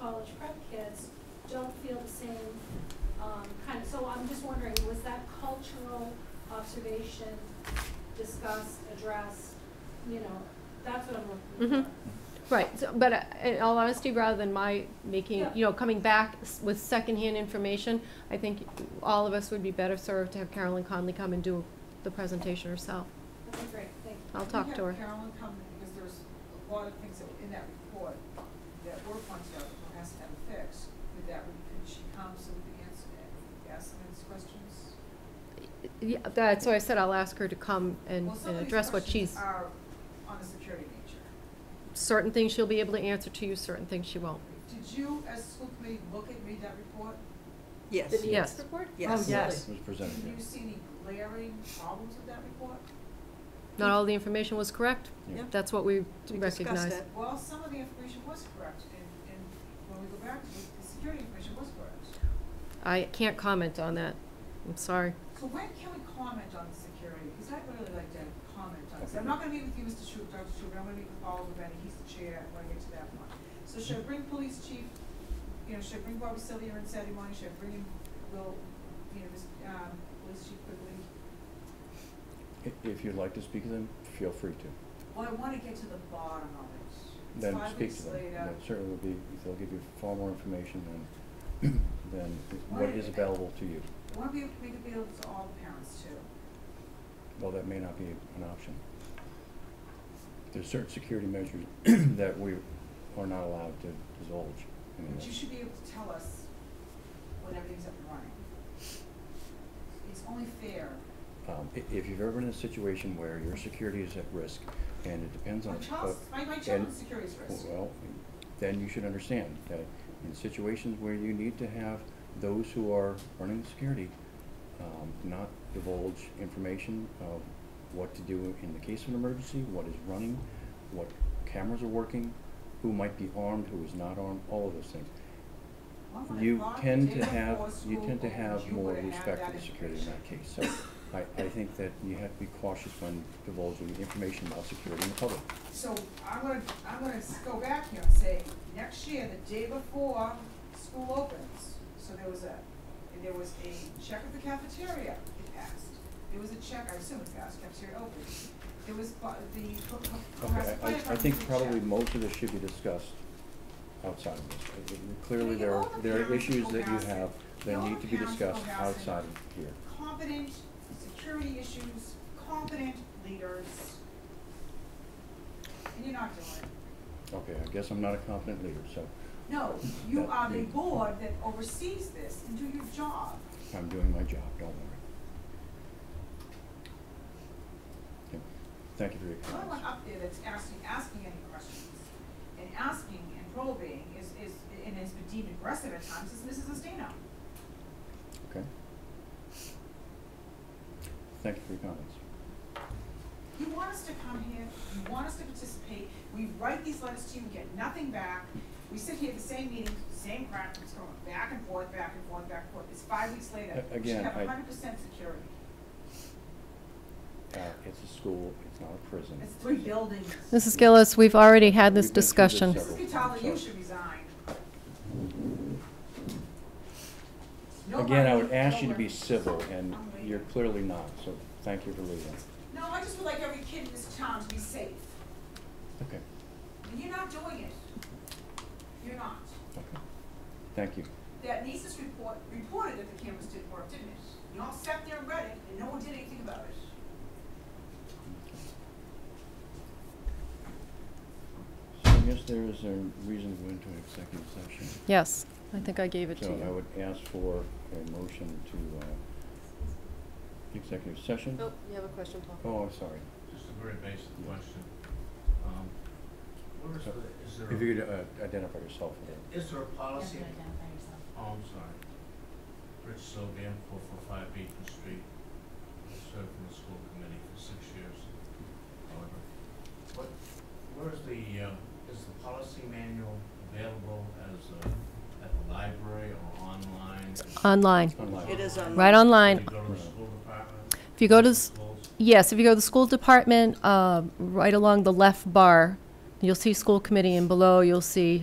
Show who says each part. Speaker 1: college prep kids don't feel the same, um, kind of, so I'm just wondering, was that cultural observation discussed, addressed, you know, that's what I'm looking
Speaker 2: Mhm.
Speaker 1: for.
Speaker 2: Right, so, but uh, in all honesty, rather than my making,
Speaker 1: Yeah.
Speaker 2: you know, coming back s- with secondhand information, I think all of us would be better served to have Carolyn Conley come and do the presentation herself.
Speaker 1: Okay, great, thank you.
Speaker 2: I'll talk to her.
Speaker 3: We have Carolyn come, because there's a lot of things that were in that report that were pointed out that has to have fixed. Did that, could she come so we can answer, ask them these questions?
Speaker 2: Yeah, that's why I said I'll ask her to come and
Speaker 3: Well, some
Speaker 2: and
Speaker 3: of these
Speaker 2: address what
Speaker 3: questions
Speaker 2: she's,
Speaker 3: Are on the security nature.
Speaker 2: certain things she'll be able to answer to you, certain things she won't.
Speaker 3: Did you, as school committee, look at, read that report?
Speaker 4: Yes.
Speaker 2: The Yes. needs
Speaker 4: report?
Speaker 2: Oh, yes.
Speaker 5: Was
Speaker 3: Did
Speaker 5: presented,
Speaker 3: you see any glaring problems with that report?
Speaker 2: Not all the information was correct,
Speaker 5: yeah.
Speaker 4: Yeah.
Speaker 2: that's what we
Speaker 4: We discussed
Speaker 2: recognize.
Speaker 4: it.
Speaker 3: Well, some of the information was correct, and, and when we go back, the the security information was correct.
Speaker 2: I can't comment on that, I'm sorry.
Speaker 3: So when can we comment on the security? Because I'd really like to comment on this. I'm not gonna meet with you, Mr. Shu, Dr. Shu, I'm gonna meet with Oliver Benny, he's the chair, when I get to that one. So should I bring police chief, you know, should I bring Bobby Sylvia in Saturday morning, should I bring in, Will, you know, this, um, police chief quickly?
Speaker 5: I- If you'd like to speak to them, feel free to.
Speaker 3: Well, I wanna get to the bottom of it. It's
Speaker 5: Then
Speaker 3: five
Speaker 5: speak
Speaker 3: weeks
Speaker 5: to them.
Speaker 3: later.
Speaker 5: That certainly will be, they'll give you far more information than, than what is available to you.
Speaker 3: I wanna be able to make it available to all the parents too.
Speaker 5: Well, that may not be an option. There's certain security measures that we are not allowed to divulge. I mean,
Speaker 3: But you should be able to tell us when everything's up and running. It's only fair.
Speaker 5: um, i- If you've ever been in a situation where your security is at risk, and it depends on.
Speaker 3: My child's,
Speaker 5: uh,
Speaker 3: my, my
Speaker 5: and-
Speaker 3: children's security is at risk.
Speaker 5: Well, then you should understand that in situations where you need to have those who are running security um, not divulge information of what to do in the case of an emergency, what is running, what cameras are working, who might be armed, who is not armed, all of those things.
Speaker 3: Well, when I
Speaker 5: You
Speaker 3: brought the
Speaker 5: tend
Speaker 3: day
Speaker 5: to have,
Speaker 3: before
Speaker 5: you
Speaker 3: school
Speaker 5: tend to
Speaker 3: opens,
Speaker 5: have
Speaker 3: you
Speaker 5: more
Speaker 3: would've had
Speaker 5: respect for
Speaker 3: that
Speaker 5: the security in that
Speaker 3: information.
Speaker 5: case. So I, I think that you have to be cautious when divulging information about security in the public.
Speaker 3: So I'm gonna, I'm gonna s- go back here and say, next year, the day before school opens, so there was a, there was a check of the cafeteria, it passed. There was a check, I assume it passed, cafeteria opened. There was bu- the, co- co-
Speaker 5: Okay,
Speaker 3: Cohasset
Speaker 5: I,
Speaker 3: Fire
Speaker 5: I I
Speaker 3: Department
Speaker 5: think
Speaker 3: did a
Speaker 5: probably
Speaker 3: check.
Speaker 5: most of this should be discussed outside of this. Uh, uh, Clearly,
Speaker 3: Yeah,
Speaker 5: there
Speaker 3: all
Speaker 5: are,
Speaker 3: the
Speaker 5: there are
Speaker 3: parents
Speaker 5: issues
Speaker 3: will
Speaker 5: that you
Speaker 3: pass it.
Speaker 5: have that
Speaker 3: All
Speaker 5: need
Speaker 3: the
Speaker 5: to be
Speaker 3: parents will
Speaker 5: discussed
Speaker 3: pass it.
Speaker 5: outside of here.
Speaker 3: Competent security issues, competent leaders. And you're not doing it.
Speaker 5: Okay, I guess I'm not a competent leader, so
Speaker 3: No, you
Speaker 5: That
Speaker 3: are the
Speaker 5: you-
Speaker 3: board that oversees this and do your job.
Speaker 5: I'm doing my job, don't worry. Okay, Thank you for your
Speaker 3: The only one
Speaker 5: comments.
Speaker 3: up there that's actually asking any questions and asking and probing is, is, and has been deemed aggressive at times, is Mrs. Estino. uh,
Speaker 5: Okay? Thank you for your comments.
Speaker 3: You want us to come here, you want us to participate, we write these letters to you, we get nothing back. We sit here at the same meeting, same crap, it's going back and forth, back and forth, back and forth. It's five weeks later.
Speaker 5: A- again,
Speaker 3: We should
Speaker 5: I-
Speaker 3: have hundred percent security.
Speaker 5: Uh, it's a school, it's not a prison.
Speaker 3: It's three buildings.
Speaker 2: Mrs. Gillis, we've already had
Speaker 5: this
Speaker 2: this
Speaker 5: We've been through this discussion.
Speaker 2: discussion.
Speaker 5: several-
Speaker 3: Mrs. Catala, you should resign. No
Speaker 5: Again, I
Speaker 3: money,
Speaker 5: would ask
Speaker 3: no
Speaker 5: you to be
Speaker 3: work.
Speaker 5: civil, and
Speaker 3: I'm leaving.
Speaker 5: you're clearly not, so thank you for leaving.
Speaker 3: No, I just would like every kid in this town to be safe,
Speaker 5: Okay,
Speaker 3: and you're not doing it. You're not.
Speaker 5: okay. Thank you.
Speaker 3: That NISIS report reported that the cameras didn't work, didn't it? You all sat there and read it, and no one did anything about it.
Speaker 5: So I guess there is a reason to go into an executive session.
Speaker 2: Yes, I think I gave it to
Speaker 5: So I
Speaker 2: you.
Speaker 5: would ask for a motion to, uh, executive session.
Speaker 2: Oh, you have a question, Paul?
Speaker 5: Oh, I'm sorry.
Speaker 6: Just a very basic question. Um, Where is the, is
Speaker 5: If you
Speaker 6: there,
Speaker 5: could uh, identify yourself again.
Speaker 6: a- is there a policy? Oh, I'm sorry. Rich Sylvan, four four five Beacon Street. I Served on the school committee for six years, however. What, where is the, uh, is the policy manual available as a, at the library or online?
Speaker 2: Online,
Speaker 5: Online.
Speaker 4: It is online.
Speaker 2: right
Speaker 6: Do
Speaker 2: online.
Speaker 6: you go to the school department?
Speaker 2: If you go to, s-
Speaker 6: Schools?
Speaker 2: yes, if you go to the school department, uh, right along the left bar, you'll see school committee, and below you'll see